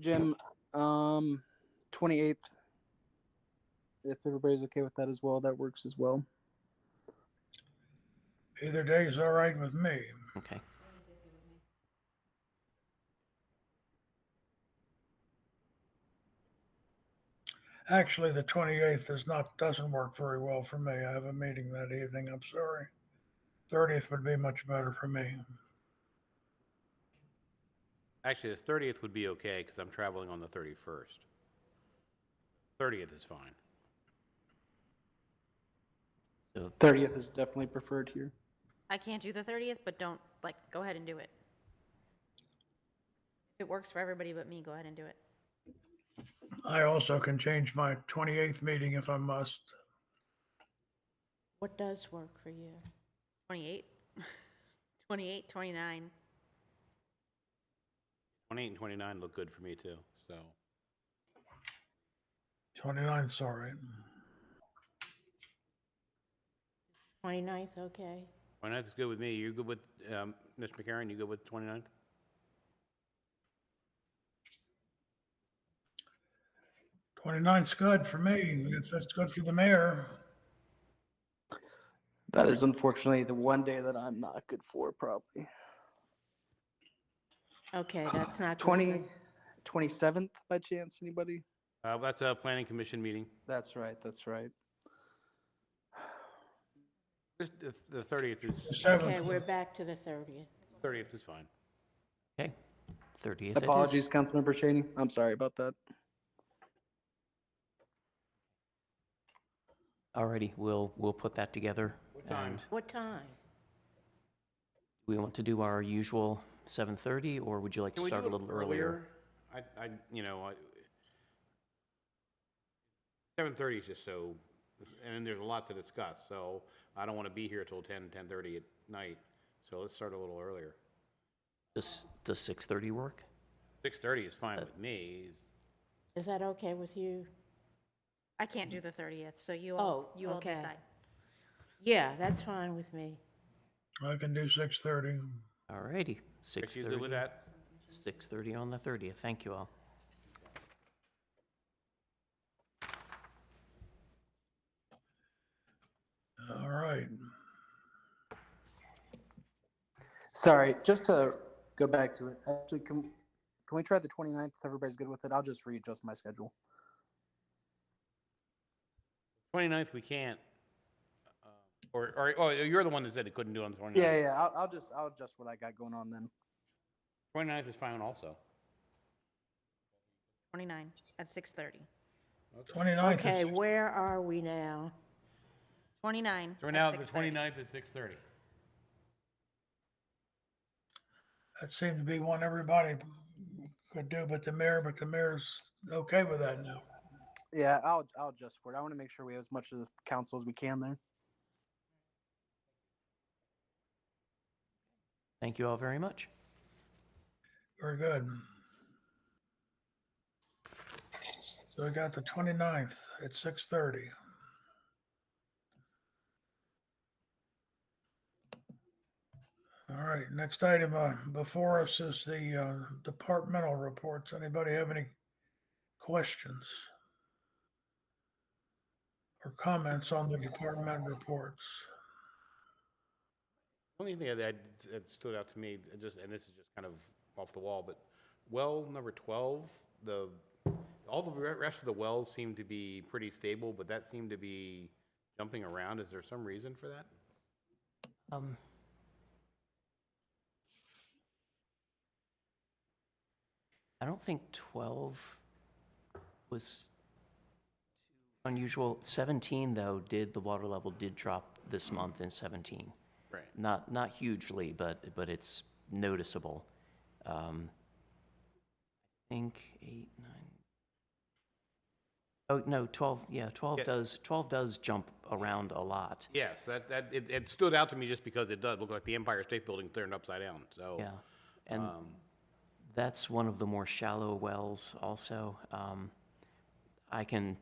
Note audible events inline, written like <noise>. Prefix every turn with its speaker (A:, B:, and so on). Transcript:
A: Jim, um, 28th. If everybody's okay with that as well, that works as well.
B: Either day is all right with me.
C: Okay.
B: Actually, the 28th is not, doesn't work very well for me. I have a meeting that evening. I'm sorry. 30th would be much better for me.
D: Actually, the 30th would be okay because I'm traveling on the 31st. 30th is fine.
C: So
A: 30th is definitely preferred here.
E: I can't do the 30th, but don't, like, go ahead and do it. If it works for everybody but me, go ahead and do it.
B: I also can change my 28th meeting if I must.
E: What does work for you? <laughs> 28? 28, 29?
D: 28 and 29 look good for me too, so.
B: 29th's all right.
E: 29th, okay.
D: 29th is good with me. You good with, um, Ms. McCarron, you good with 29th?
B: Twenty-nine's good for me. If it's good for the mayor,
A: That is unfortunately the one day that I'm not good for, probably.
E: Okay, that's not. good for-
A: 20, 27th by chance, anybody?
D: Uh, that's a planning commission meeting.
A: That's right, that's right.
D: This- The the 30th
B: the
D: is,
E: Okay, we're
B: seventh,
E: back to the 30th.
D: 30th is fine.
C: okay, thirtieth.
A: Apologies, Councilmember Cheney. I'm sorry about that.
C: Alrighty, we'll we'll put that together.
D: What time?
C: and
E: What time?
C: We want to do our usual seven thirty, or would you like to
D: Can we
C: start
D: do
C: a
D: it
C: little earlier?
D: I, I, you know, I, 7:30 is just so, and there's a lot to discuss, so I don't want to be here till 10, 10:30 at night, so let's start a little earlier.
C: Does does six thirty work?
D: 6:30 is fine with me.
E: Is that okay with you?
F: I can't do the 30th, so you all,
E: Oh,
F: you all
E: okay.
F: decide.
E: Yeah, that's fine with me.
B: I can do six-thirty.
C: Alrighty,
D: Rick,
C: six
D: you good with
C: thirty.
D: that?
C: Six thirty on the thirtieth. Thank you all.
B: All right.
A: Sorry, just to go back to it, actually, can, can we try the 29th if everybody's good with it? I'll just readjust my schedule.
D: 29th, we can't. uh, Or, or, oh, you're the one that said it couldn't do on the 29th.
A: Yeah, yeah, I'll, I'll just, I'll adjust what I got going on then.
D: 29th is fine also.
F: 29 at 6:30.
B: 29th
E: Okay,
B: is,
E: where are we now?
F: 29
D: So we're
F: at
D: now at the
F: 6:30.
D: 29th at 6:30.
B: that seemed to be one everybody could do, but the mayor, but the mayor's okay with that now.
A: Yeah, I'll, I'll adjust for it. I want to make sure we have as much of the council as we can there.
C: Thank you all very much.
B: Very good. So we got the 29th at six-thirty. All right, next item uh, before us is the uh, departmental reports. Anybody have any questions? Or comments on the department reports?
D: Only thing that, that stood out to me, uh, just, and this is just kind of off the wall, but well number 12, the, all the re- rest of the wells seem to be pretty stable, but that seemed to be jumping around. Is there some reason for that?
C: Um, I don't think 12 was too unusual. 17, though, did, the water level did drop this month in 17.
D: Right.
C: Not, not hugely, but, but it's noticeable. Um, I think eight, nine. Oh, no, 12, yeah, 12
D: Yeah.
C: does, 12 does jump around a lot.
D: Yes, that, that, it, it stood out to me just because it does look like the Empire State Building turned upside down, so.
C: Yeah, and that's one of the more shallow wells also. Um, I can